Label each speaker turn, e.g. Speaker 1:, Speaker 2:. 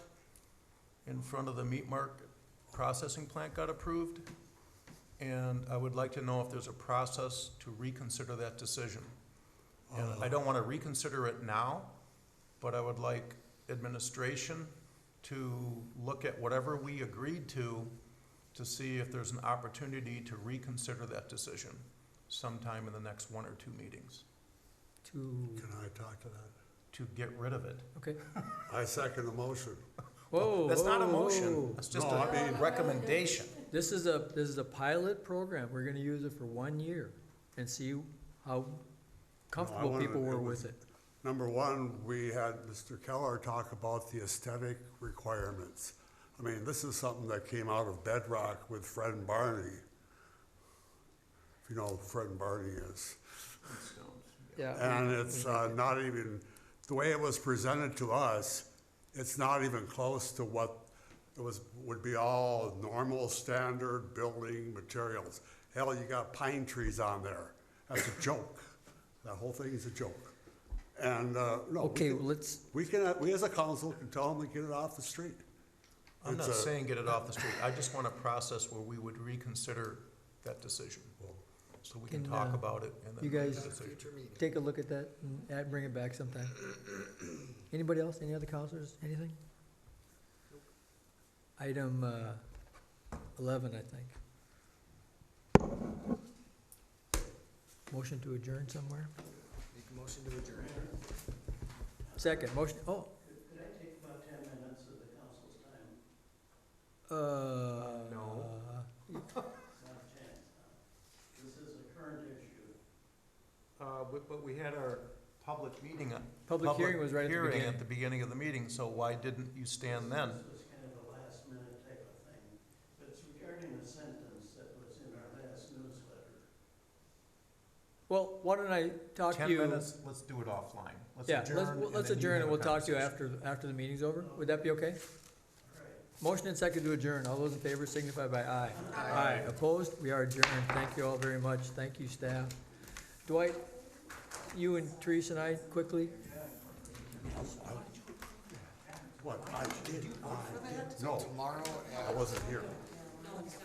Speaker 1: in front of the meat market processing plant got approved. And I would like to know if there's a process to reconsider that decision.
Speaker 2: Uh-huh.
Speaker 1: And I don't want to reconsider it now, but I would like administration to look at whatever we agreed to, to see if there's an opportunity to reconsider that decision sometime in the next one or two meetings,
Speaker 3: to,
Speaker 2: Can I talk to that?
Speaker 1: to get rid of it.
Speaker 3: okay.
Speaker 2: I second the motion.
Speaker 3: Whoa,
Speaker 1: That's not a
Speaker 3: whoa,
Speaker 1: motion,
Speaker 3: whoa.
Speaker 1: that's just
Speaker 2: Oh, No, I
Speaker 1: a
Speaker 2: mean-
Speaker 1: recommendation.
Speaker 3: This is a, this is a pilot program. We're gonna use it for one year and see how comfortable
Speaker 2: wanted-
Speaker 3: people
Speaker 2: it
Speaker 3: were
Speaker 2: was-
Speaker 3: with it.
Speaker 2: Number one, we had Mr. Keller talk about the aesthetic requirements. I mean, this is something that came out of bedrock with Fred and Barney. If you know who Fred and Barney is.
Speaker 3: Yeah,
Speaker 2: And it's uh, not even, the way it was presented to us, it's not even close to what it was, would be all normal standard building materials. Hell, you got pine trees on there. That's a joke. That whole thing is a joke. And, uh, no. we
Speaker 3: okay,
Speaker 2: can-
Speaker 3: well, let's,
Speaker 2: We can, uh, we as a council can tell them to get it off the street.
Speaker 1: I'm
Speaker 2: It's
Speaker 1: not
Speaker 2: a-
Speaker 1: saying get it off the street, I just want a process where we would reconsider that decision. So we can
Speaker 3: Can,
Speaker 1: talk
Speaker 3: uh,
Speaker 1: about it and then.
Speaker 3: you
Speaker 1: make a
Speaker 3: guys-
Speaker 1: decision.
Speaker 3: take a look at that and add- bring it back sometime. Anybody else, any other counselors, anything? Item uh, eleven, I think. Motion to adjourn somewhere?
Speaker 4: Make a motion to adjourn.
Speaker 3: Second, motion, oh,
Speaker 5: Could I take about ten minutes of the council's time?
Speaker 3: uh.
Speaker 1: No.
Speaker 5: Not ten. This is a current issue.
Speaker 1: Uh, but, but we had our public meeting. on-
Speaker 3: Public hearing was right at the
Speaker 1: hearing
Speaker 3: beginning.
Speaker 1: at the beginning of the meeting, so why didn't you stand then?
Speaker 5: This was kind of a last minute type of thing, but it's regarding a sentence that was in our last newsletter.
Speaker 3: Well, why don't I talk to
Speaker 1: Ten
Speaker 3: you?
Speaker 1: minutes, let's do it offline. Let's
Speaker 3: Yeah, let's,
Speaker 1: adjourn,
Speaker 3: well,
Speaker 1: and
Speaker 3: let's
Speaker 1: then you
Speaker 3: adjourn
Speaker 1: have
Speaker 3: and
Speaker 1: a
Speaker 3: we'll talk to you
Speaker 1: conversation.
Speaker 3: after, after the meeting's over. Would that be okay?
Speaker 5: All right,
Speaker 3: Motion and second to adjourn. All those in favor signify by aye. Aye. Opposed? We are adjourned. Thank you all very much. Thank you, staff. Dwight, you and Teresa and I quickly,
Speaker 2: What? I did. Did you vote for that? No. Tomorrow? I wasn't here.